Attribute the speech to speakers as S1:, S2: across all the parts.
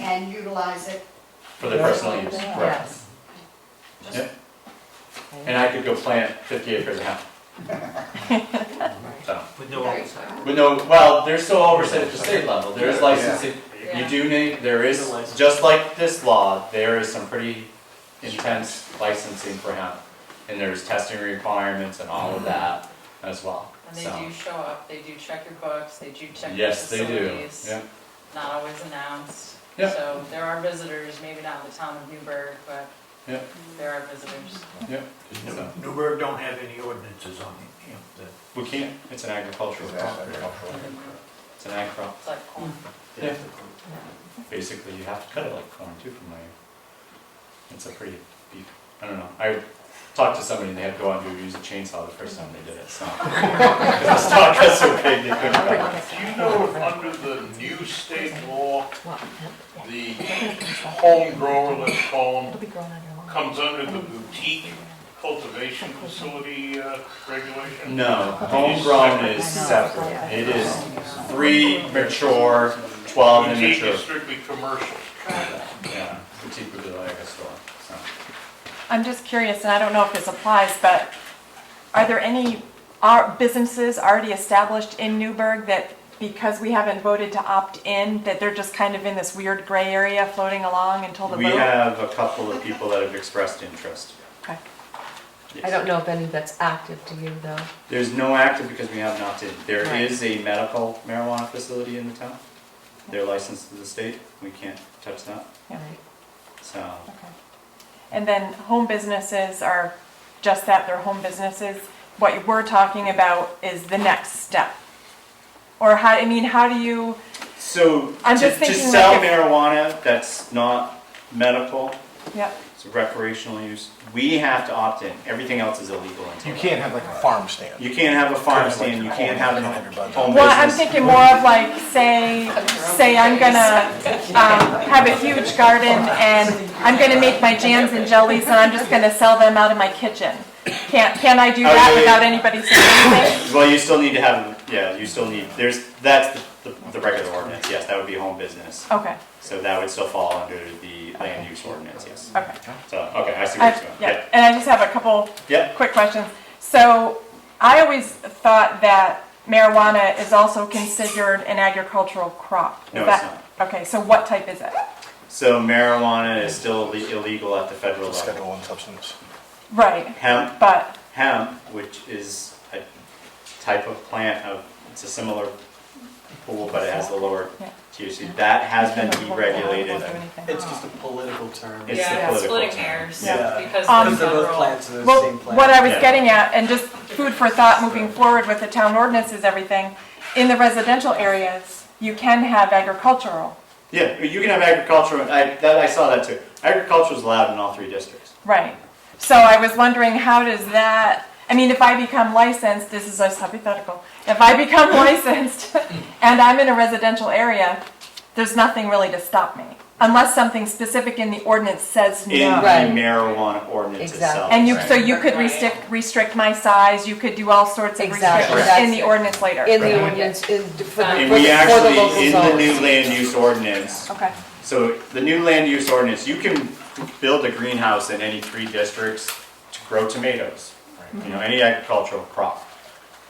S1: and utilize it.
S2: for their personal use, right.
S1: Yes.
S2: Yeah. And I could go plant fifty acres now. So,
S3: With no oversight.
S2: but no, well, there's still oversight at the state level, there is licensing, you
S4: Yeah.
S2: do need, there is,
S3: The license.
S2: just like this law, there is some pretty intense licensing for hemp. And there's testing requirements and all of that as well,
S4: Mm-hmm. And they
S2: so,
S4: do show up, they do check your books, they do check your
S2: yes, they do,
S4: facilities.
S2: yeah.
S4: Not always announced.
S2: Yeah.
S4: So there are visitors, maybe not in the town of Newburgh, but
S2: Yeah.
S4: there are visitors.
S2: So,
S3: Newburgh don't have any ordinances on it, you know, the
S2: We can't, it's an agricultural,
S5: It's agricultural.
S2: it's an ag crop,
S4: It's like corn.
S2: Yeah. basically you have to cut it like corn too from my, it's a pretty beef, I don't know. I talked to somebody and they had to go out and do- use a chainsaw the first time they did it, so. 'Cause the stalk got so big they couldn't cut it.
S6: Do you know if under the new state law, the home grower, let's call him, comes under the boutique cultivation facility uh, regulation?
S2: No, homegrown is separate, it is three mature, twelve
S6: Boutique
S2: immature.
S6: is strictly commercial.
S2: Yeah, boutique would be like a store, so.
S7: I'm just curious, and I don't know if this applies, but are there any ar- businesses already established in Newburgh that because we haven't voted to opt in, that they're just kind of in this weird gray area floating along until the
S2: We
S7: vote?
S2: have a couple of people that have expressed interest.
S7: Okay.
S8: I don't know if any that's active to you though.
S2: There's no active because we have not did. There
S8: Right.
S2: is a medical marijuana facility in the town. They're licensed to the state. We can't touch that.
S7: Yeah.
S2: So,
S7: Okay. And then home businesses are just that, they're home businesses. What we're talking about is the next step. Or how, I mean, how do you,
S2: so
S7: I'm
S2: to,
S7: just
S2: to
S7: thinking
S2: sell
S7: like if-
S2: marijuana that's not medical,
S7: yep,
S2: it's recreational use, we have to opt in. Everything else is illegal in
S5: You
S2: town.
S5: can't have like a farm stand.
S2: You can't have a farm
S5: Kind of like
S2: stand. You
S5: home-
S2: can't have
S5: home
S2: a
S5: business.
S2: home
S7: Well, I'm
S2: business.
S7: thinking more of like, say, say I'm gonna um, have a huge garden and I'm gonna make my jams and jellies and I'm just gonna sell them out of my kitchen. Can't, can I do
S2: Oh, yeah,
S7: that
S2: yeah.
S7: without anybody saying anything?
S2: Well, you still need to have, yeah, you still need, there's, that's the, the- the regular ordinance. Yes, that would be home business.
S7: Okay,
S2: So that would still fall under the land use ordinance, yes.
S7: okay.
S2: So, okay, I see where it's
S7: I-
S2: going.
S7: Yeah, and I just have a couple
S2: Yeah.
S7: quick questions. So I always thought that marijuana is also considered an agricultural crop. Is
S2: No, it's
S7: that- Okay, so what type is it?
S2: So marijuana is still le- illegal at the federal
S5: Schedule
S2: level.
S5: one substance.
S7: Right,
S2: Hemp,
S7: but
S2: hemp, which is a type of plant of, it's a similar pool, but it has the lower
S7: Yeah.
S2: THC. That has been
S7: Won't
S2: deregulated.
S7: do anything.
S9: It's just a political term.
S2: It's the
S4: Yeah,
S2: political
S4: splitting
S2: term.
S4: hairs,
S9: Yeah.
S4: because
S7: Um,
S4: the
S9: Because they're both
S4: federal.
S9: plants and they're the
S7: Well,
S9: same plant.
S7: what I was
S2: Yeah.
S7: getting at, and just food for thought moving forward with the town ordinances, everything, in the residential areas, you can have agricultural,
S2: Yeah, you can have agriculture, I, that, I saw that too. Agriculture's allowed in all three districts.
S7: right? So I was wondering, how does that, I mean, if I become licensed, this is just hypothetical, if I become licensed and I'm in a residential area, there's nothing really to stop me, unless something specific in the ordinance says
S2: In
S7: no.
S8: Right.
S2: the marijuana ordinance
S8: Exactly.
S2: itself.
S7: And you, so
S2: Right.
S7: you could restrict, restrict my size, you could do all sorts of
S8: Exactly.
S7: restrictions in the ordinance later.
S8: In
S2: Right.
S8: the ordinance, in, for the, for the
S4: And
S2: And
S8: for
S2: we
S8: the local
S2: actually, in the
S8: zones.
S2: new land use ordinance,
S7: Okay.
S2: So the new land use ordinance, you can build a greenhouse in any three districts to grow tomatoes, you
S8: Mm-hmm.
S2: know, any agricultural crop.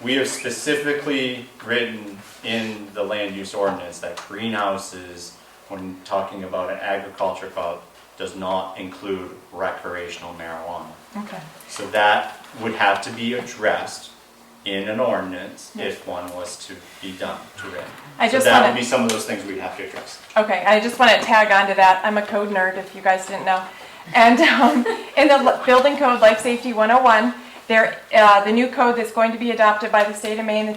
S2: We have specifically written in the land use ordinance that greenhouses, when talking about an agriculture crop, does not include recreational marijuana.
S7: Okay.
S2: So that would have to be addressed in an ordinance
S8: Mm-hmm.
S2: if one was to be done to it.
S7: I
S2: So
S7: just
S2: that
S7: wanna-
S2: would be some of those things we'd have to address.
S7: Okay, I just want to tag onto that. I'm a code nerd, if you guys didn't know. And um, in the l- Building Code Life Safety 101, there, uh, the new code that's going to be adopted by the state of Maine in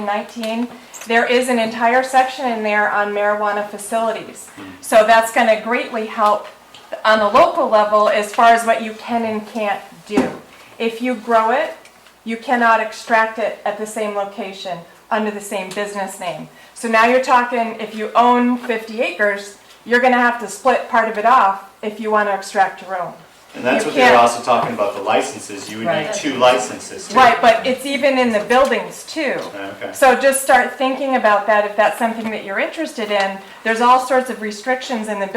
S7: 2019, there is an entire section in there on marijuana facilities.
S2: Hmm.
S7: So that's going to greatly help on the local level as far as what you can and can't do. If you grow it, you cannot extract it at the same location under the same business name. So now you're talking, if you own 50 acres, you're going to have to split part of it off if you want to extract your own.
S2: And that's
S7: You
S2: what they were
S7: can't-
S2: also talking about, the licenses, you would need
S8: Right.
S2: two licenses. too.
S7: Right, but it's even in the buildings too.
S2: Okay.
S7: So just start thinking about that if that's something that you're interested in. There's all sorts of restrictions in the